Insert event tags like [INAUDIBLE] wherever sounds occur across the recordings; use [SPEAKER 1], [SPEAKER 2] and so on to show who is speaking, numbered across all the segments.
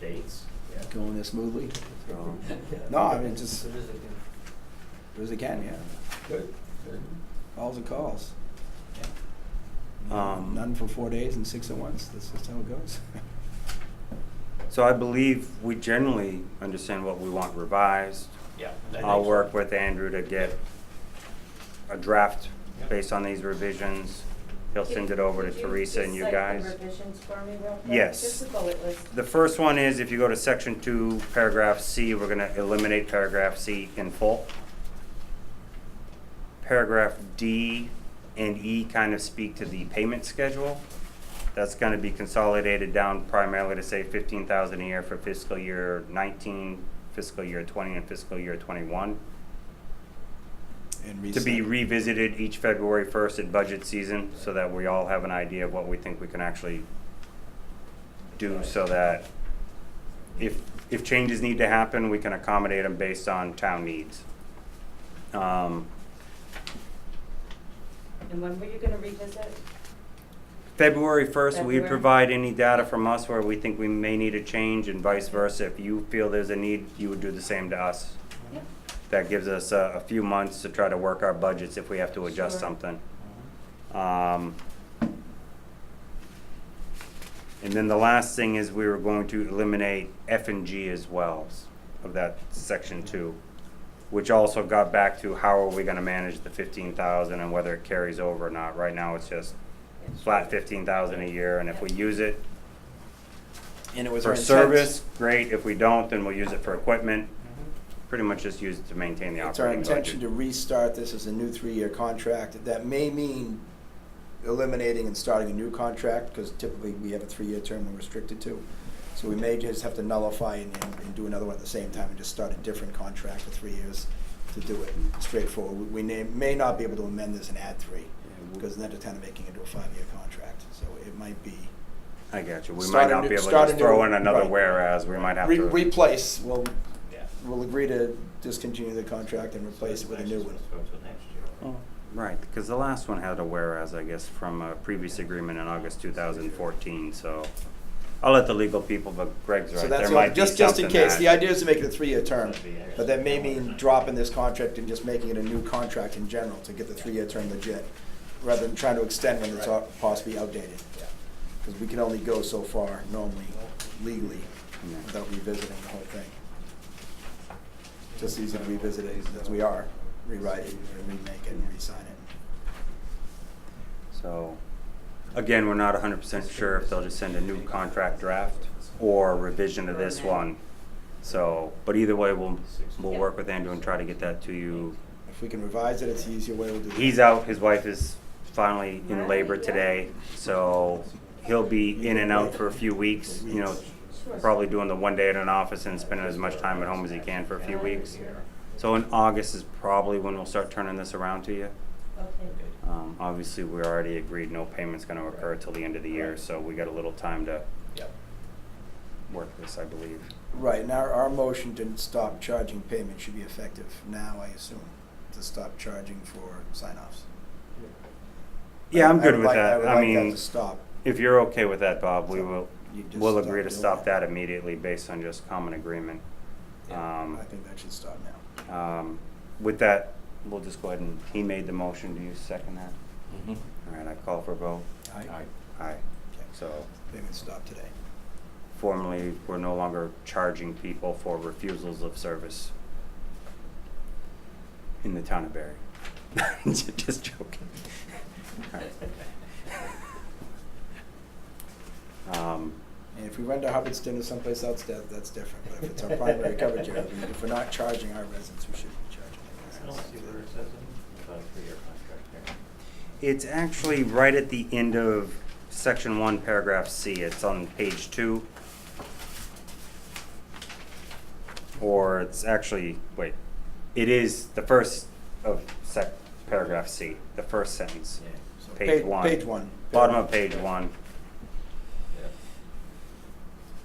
[SPEAKER 1] dates. Yeah.
[SPEAKER 2] going this smoothly. So,
[SPEAKER 3] Um,
[SPEAKER 2] no, I mean, just as good as it can, yeah.
[SPEAKER 1] Good. Good.
[SPEAKER 2] Calls and calls.
[SPEAKER 3] Um,
[SPEAKER 2] None for four days and six at once. That's just how it goes. [LAUGHS]
[SPEAKER 3] So I believe we generally understand what we want revised.
[SPEAKER 1] Yeah. I think
[SPEAKER 3] I'll
[SPEAKER 1] so.
[SPEAKER 3] work with Andrew to get a draft
[SPEAKER 1] Yep.
[SPEAKER 3] based on these revisions. He'll send it over to
[SPEAKER 4] Could you
[SPEAKER 3] Teresa and you guys.
[SPEAKER 4] Just cite the revisions for me real quick?
[SPEAKER 3] Yes.
[SPEAKER 4] Just the bullet list.
[SPEAKER 3] The first one is if you go to section two, paragraph C, we're gonna eliminate paragraph C in full. Paragraph D and E kind of speak to the payment schedule. That's gonna be consolidated down primarily to say fifteen thousand a year for fiscal year nineteen, fiscal year twenty, and fiscal year twenty-one.
[SPEAKER 2] And
[SPEAKER 3] To be
[SPEAKER 2] reset.
[SPEAKER 3] revisited each February first at budget season, so that we all have an idea of what we think we can actually do so that if, if changes need to happen, we can accommodate them based on town needs. Um,
[SPEAKER 4] And when were you gonna revisit?
[SPEAKER 3] February first, we
[SPEAKER 4] February.
[SPEAKER 3] provide any data from us where we think we may need a change and vice versa. If you feel there's a need, you would do the same to us.
[SPEAKER 4] Yep.
[SPEAKER 3] That gives us a, a few months to try to work our budgets if we have to adjust
[SPEAKER 4] Sure.
[SPEAKER 3] something. Um, and then the last thing is we were going to eliminate F and G as well of that section two, which also got back to how are we gonna manage the fifteen thousand and whether it carries over or not. Right now, it's just flat fifteen thousand a year, and if we use it
[SPEAKER 2] And it was our
[SPEAKER 3] for
[SPEAKER 2] intent-
[SPEAKER 3] service, great. If we don't, then we'll use it for equipment. Pretty much just use it to maintain the
[SPEAKER 2] Mm-hmm. It's our
[SPEAKER 3] operating
[SPEAKER 2] intention to
[SPEAKER 3] budget.
[SPEAKER 2] restart this as a new three-year contract. That may mean eliminating and starting a new contract, because typically we have a three-year term we're restricted to. So we may just have to nullify and, and- and do another one at the same time and just start a different contract for three years to do it straightforward. We- We may, may not be able to amend this and add three, because then they're kind of making it into a five-year contract. So it might be,
[SPEAKER 3] I got you. We
[SPEAKER 2] Start
[SPEAKER 3] might
[SPEAKER 2] a
[SPEAKER 3] not
[SPEAKER 2] new-
[SPEAKER 3] be able to
[SPEAKER 2] start a
[SPEAKER 3] just throw
[SPEAKER 2] new-
[SPEAKER 3] in another
[SPEAKER 2] right.
[SPEAKER 3] whereas. We might have
[SPEAKER 2] re-
[SPEAKER 3] to.
[SPEAKER 2] replace, we'll,
[SPEAKER 1] Yeah.
[SPEAKER 2] we'll agree to discontinue the contract and replace it with a new one.
[SPEAKER 1] Let's go to next year.
[SPEAKER 3] Oh, Right, because the last one had a whereas, I guess, from a previous agreement in August two thousand fourteen, so. I'll let the legal people, but Greg's
[SPEAKER 2] So
[SPEAKER 3] right.
[SPEAKER 2] that's
[SPEAKER 3] There
[SPEAKER 2] all,
[SPEAKER 3] might be
[SPEAKER 2] just, just in
[SPEAKER 3] something
[SPEAKER 2] case,
[SPEAKER 3] that-
[SPEAKER 2] the idea is to make it a three-year term,
[SPEAKER 1] That'd be
[SPEAKER 2] but that may
[SPEAKER 1] excellent.
[SPEAKER 2] mean dropping this contract and just making it a new contract in general to get the three-year term legit, rather than trying to extend when it's
[SPEAKER 1] Right.
[SPEAKER 2] au- possibly outdated. Because we can only go so far normally, legally,
[SPEAKER 3] Yeah.
[SPEAKER 2] without revisiting the whole thing. Just easy to revisit it, as we are, rewrite it, and remake it, and re-sign it.
[SPEAKER 3] So, again, we're not hundred percent sure if they'll just send a new contract draft or revision of this one. So, but either way, we'll, we'll work with Andrew and try to get that to you.
[SPEAKER 2] If we can revise it, it's the easier way we'll do it.
[SPEAKER 3] He's out, his wife is finally in labor today, so he'll be in and out for a few weeks, you know,
[SPEAKER 4] Sure.
[SPEAKER 3] probably doing the one day at an office and spending as much time at home as he can for a few weeks. So in August is probably when we'll start turning this around to you.
[SPEAKER 4] Okay.
[SPEAKER 3] Um, obviously, we already agreed no payment's gonna occur till the end of the year, so we got a little time to
[SPEAKER 1] Yep.
[SPEAKER 3] work this, I believe.
[SPEAKER 2] Right, and our, our motion to stop charging payment should be effective now, I assume, to stop charging for sign-offs.
[SPEAKER 3] Yeah, I'm
[SPEAKER 2] I
[SPEAKER 3] good
[SPEAKER 2] would
[SPEAKER 3] with
[SPEAKER 2] like-
[SPEAKER 3] that. I
[SPEAKER 2] would like that
[SPEAKER 3] mean,
[SPEAKER 2] to stop.
[SPEAKER 3] if you're okay with that, Bob, we
[SPEAKER 2] So,
[SPEAKER 3] will,
[SPEAKER 2] you just
[SPEAKER 3] we'll
[SPEAKER 2] stop
[SPEAKER 3] agree to
[SPEAKER 2] doing
[SPEAKER 3] stop
[SPEAKER 2] that.
[SPEAKER 3] that immediately based on just common agreement.
[SPEAKER 1] Yeah.
[SPEAKER 3] Um,
[SPEAKER 2] I think that should stop now.
[SPEAKER 3] Um, With that, we'll just go ahead and, he made the motion, do you second that? All right, I call for a vote.
[SPEAKER 2] Aye.
[SPEAKER 3] Aye.
[SPEAKER 2] Okay.
[SPEAKER 3] So
[SPEAKER 2] Payment stop today.
[SPEAKER 3] formally, we're no longer charging people for refusals of service in the town of Barry. [LAUGHS] Just joking.
[SPEAKER 2] [LAUGHS]
[SPEAKER 3] All right. Um,
[SPEAKER 2] And if we run to Hubbardston or someplace else, that, that's different, but if it's our
[SPEAKER 1] [LAUGHS]
[SPEAKER 2] primary coverage area, we- if we're not charging our residents, we should be charging
[SPEAKER 1] I
[SPEAKER 2] our
[SPEAKER 1] don't see
[SPEAKER 2] residents.
[SPEAKER 1] where it says anything about a three-year contract here.
[SPEAKER 3] It's actually right at the end of section one, paragraph C. It's on page two. Or it's actually, wait, it is the first of sec, paragraph C, the first sentence.
[SPEAKER 1] Yeah.
[SPEAKER 2] So
[SPEAKER 3] Page
[SPEAKER 2] pa-
[SPEAKER 3] one.
[SPEAKER 2] Page one.
[SPEAKER 3] Bottom of page one.
[SPEAKER 1] Yep.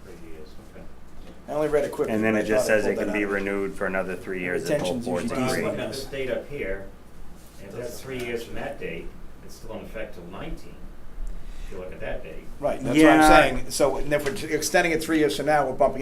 [SPEAKER 1] Three years, okay.
[SPEAKER 2] I only read it quickly.
[SPEAKER 3] And then
[SPEAKER 2] but
[SPEAKER 3] it
[SPEAKER 2] I
[SPEAKER 3] just
[SPEAKER 2] thought I
[SPEAKER 3] says it
[SPEAKER 2] pulled
[SPEAKER 3] can
[SPEAKER 2] that
[SPEAKER 3] be
[SPEAKER 2] out.
[SPEAKER 3] renewed for another three years if both
[SPEAKER 2] Retention's
[SPEAKER 3] boards
[SPEAKER 2] usually
[SPEAKER 1] Well, I'm
[SPEAKER 3] agree.
[SPEAKER 2] decent.
[SPEAKER 1] looking at this date up here, and if that's three years from that date, it's still in effect till nineteen, if you look at that date.
[SPEAKER 2] Right, that's what I'm
[SPEAKER 3] Yeah.
[SPEAKER 2] saying, so, and if we're extending it three years from now, we're bumping